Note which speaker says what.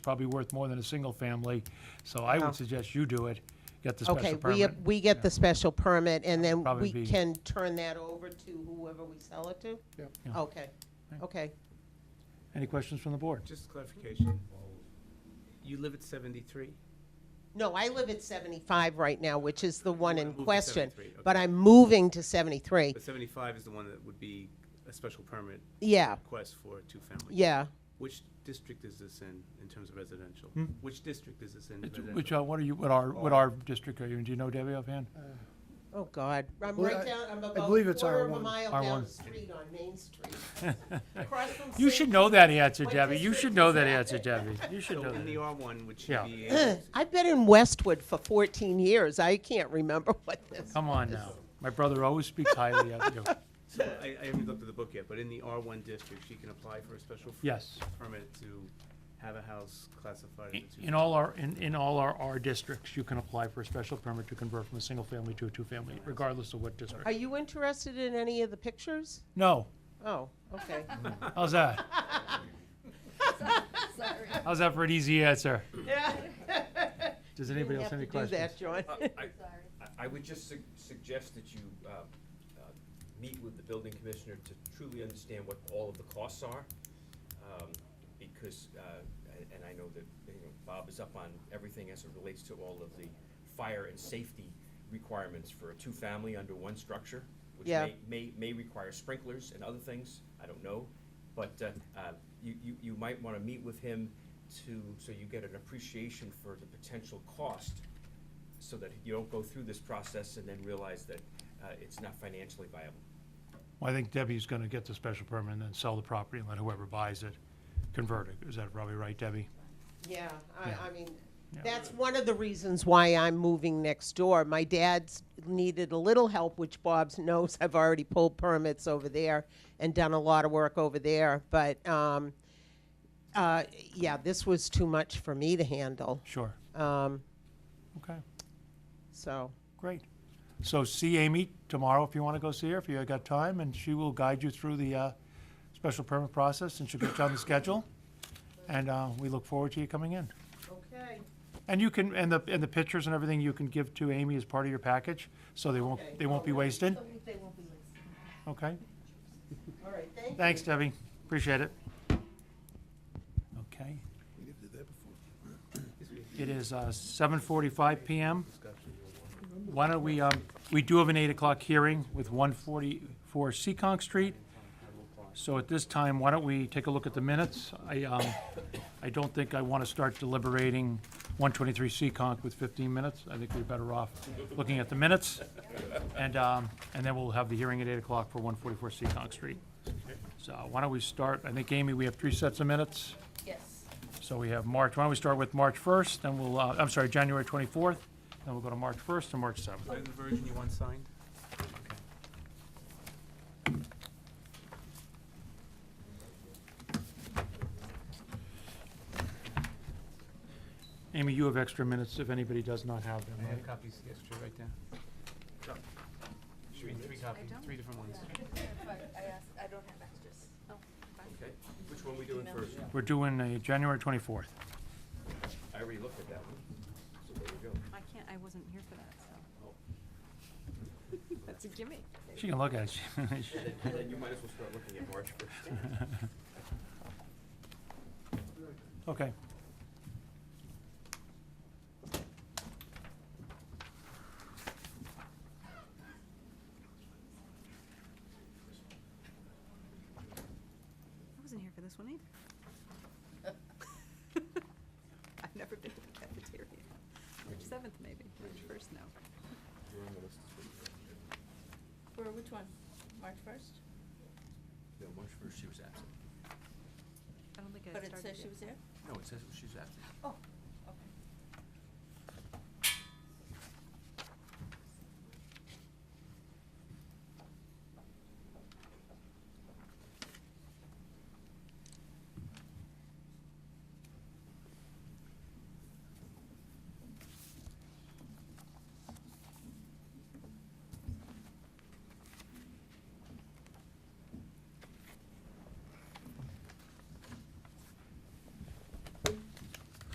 Speaker 1: probably worth more than a single family, so I
Speaker 2: Oh.
Speaker 1: would suggest you do it, get the
Speaker 2: Okay,
Speaker 1: special
Speaker 2: we,
Speaker 1: permit.
Speaker 2: ap- we get the special permit, and then
Speaker 1: Probably
Speaker 2: we
Speaker 1: be-
Speaker 2: can turn that over to whoever we sell it to?
Speaker 3: Yep.
Speaker 1: Yeah.
Speaker 2: Okay,
Speaker 1: Right.
Speaker 2: okay.
Speaker 1: Any questions from the board?
Speaker 4: Just clarification. You live at 73?
Speaker 2: No, I live at 75 right now, which is the one
Speaker 4: wanna
Speaker 2: in
Speaker 4: move to
Speaker 2: question,
Speaker 4: 73, okay.
Speaker 2: but I'm moving to 73.
Speaker 4: But 75 is the one that would be a special permit
Speaker 2: Yeah,
Speaker 4: request for a two-family?
Speaker 2: yeah.
Speaker 4: Which district is this in, in terms of residential?
Speaker 1: Hmm?
Speaker 4: Which district is this in?
Speaker 1: It's-
Speaker 4: residential?
Speaker 1: Which, uh, what are you, what are, what are district are you in? Do you know Debbie offhand?
Speaker 2: Oh, God. I'm
Speaker 3: Well,
Speaker 2: right
Speaker 3: I-
Speaker 2: down, I'm
Speaker 3: I
Speaker 2: about
Speaker 3: believe it's
Speaker 2: quarter of a
Speaker 3: R1.
Speaker 2: mile
Speaker 1: R1.
Speaker 2: down the street on Main Street. Across from
Speaker 1: You
Speaker 2: St.
Speaker 1: should know that answer,
Speaker 2: My
Speaker 1: Debbie. You
Speaker 2: district
Speaker 1: should know
Speaker 2: is
Speaker 1: that
Speaker 2: that.
Speaker 1: answer, Debbie. You should
Speaker 4: So
Speaker 1: know
Speaker 4: in the
Speaker 1: that.
Speaker 4: R1, would you
Speaker 1: Yeah.
Speaker 4: be able to-
Speaker 2: I've been in Westwood for 14 years. I can't remember what this.
Speaker 1: Come on now. My brother always speaks highly of you.
Speaker 4: so I, I haven't looked at the book yet, but in the R1 district, she can apply for a special f-
Speaker 1: Yes.
Speaker 4: permit to have a house classified as
Speaker 1: In-
Speaker 4: a
Speaker 1: In
Speaker 4: two-family?
Speaker 1: all our, in, in all our R districts, you can apply for a special permit to convert from a single family to a two-family, regardless of what district.
Speaker 2: Are you interested in any of the pictures?
Speaker 1: No.
Speaker 2: Oh, okay.
Speaker 1: How's that?
Speaker 5: Sorry.
Speaker 1: How's that for an easy answer?
Speaker 2: Yeah. Uh,
Speaker 1: Does anybody else have any questions?
Speaker 2: Do that, John.
Speaker 6: I- I- I would just sug- suggest that you uh, uh, meet with the building commissioner to truly understand what all of the costs are. um, Because, uh, a- and I know that, you know, Bob is up on everything as it relates to all of the fire and safety requirements for a two-family under one structure, which
Speaker 2: Yeah.
Speaker 6: may, may, may require sprinklers and other things, I don't know. But uh, uh, you, you, you might want to meet with him to, so you get an appreciation for the potential cost so that you don't go through this process and then realize that uh, it's not financially viable.
Speaker 1: Well, I think Debbie's gonna get the special permit and then sell the property and let whoever buys it convert it. Is that probably right, Debbie?
Speaker 2: Yeah,
Speaker 1: Yeah.
Speaker 2: I, I mean,
Speaker 1: Yeah.
Speaker 2: that's one of the reasons why I'm moving next door. My dad's needed a little help, which Bob's knows. I've already pulled permits over there and done a lot of work over there, but, um, uh, yeah, this was too much for me to handle,
Speaker 1: Sure.
Speaker 2: um,
Speaker 1: Okay,
Speaker 2: so.
Speaker 1: great. So see Amy tomorrow if you wanna go see her, if you got time, and she will guide you through the, uh, special permit process and she'll get you on the schedule. And, uh, we look forward to you coming in.
Speaker 2: Okay.
Speaker 1: And you can, and the, and the pictures and everything you can give to Amy as part of your package, so they won't,
Speaker 2: Okay,
Speaker 1: they won't be
Speaker 2: all right.
Speaker 1: wasted,
Speaker 5: They won't be listening.
Speaker 1: okay?
Speaker 2: All right, thank you.
Speaker 1: Thanks, Debbie, appreciate it. Okay, it is uh, seven forty-five PM. Why don't we, um, we do have an eight o'clock hearing with one forty-four Seccong Street. So at this time, why don't we take a look at the minutes? I, um, I don't think I want to start deliberating one twenty-three Seccong with fifteen minutes. I think we're better off looking at the minutes. And, um, and then we'll have the hearing at eight o'clock for one forty-four Seccong Street. So why don't we start, I think, Amy, we have three sets of minutes.
Speaker 5: Yes.
Speaker 1: So we have March, why don't we start with March 1st, then we'll, uh, I'm sorry, January 24th, then we'll go to March 1st and March 7th.
Speaker 4: Is that the version you want signed?
Speaker 1: Amy, you have extra minutes if anybody does not have them,
Speaker 4: I have
Speaker 1: right?
Speaker 4: copies yesterday, right down. Should be three copies, three different ones.
Speaker 5: But I asked, I don't have extras. Oh, fine.
Speaker 6: Okay, which one we doing first?
Speaker 1: We're doing a January 24th.
Speaker 6: I already looked at that one, so there you go.
Speaker 5: I can't, I wasn't here for that, so. That's a gimme.
Speaker 1: She can look at it.
Speaker 6: Then- Then you might as well start looking at March first.
Speaker 1: Okay.
Speaker 5: I wasn't here for this one either. I've never been to the cafeteria. March seventh maybe, March first, no.
Speaker 7: For which one? March first?
Speaker 6: No, March first, she was absent.
Speaker 5: I don't think I
Speaker 7: But
Speaker 5: started
Speaker 7: it says
Speaker 5: yet.
Speaker 7: she was there?
Speaker 6: No, it says she was absent.
Speaker 7: Oh,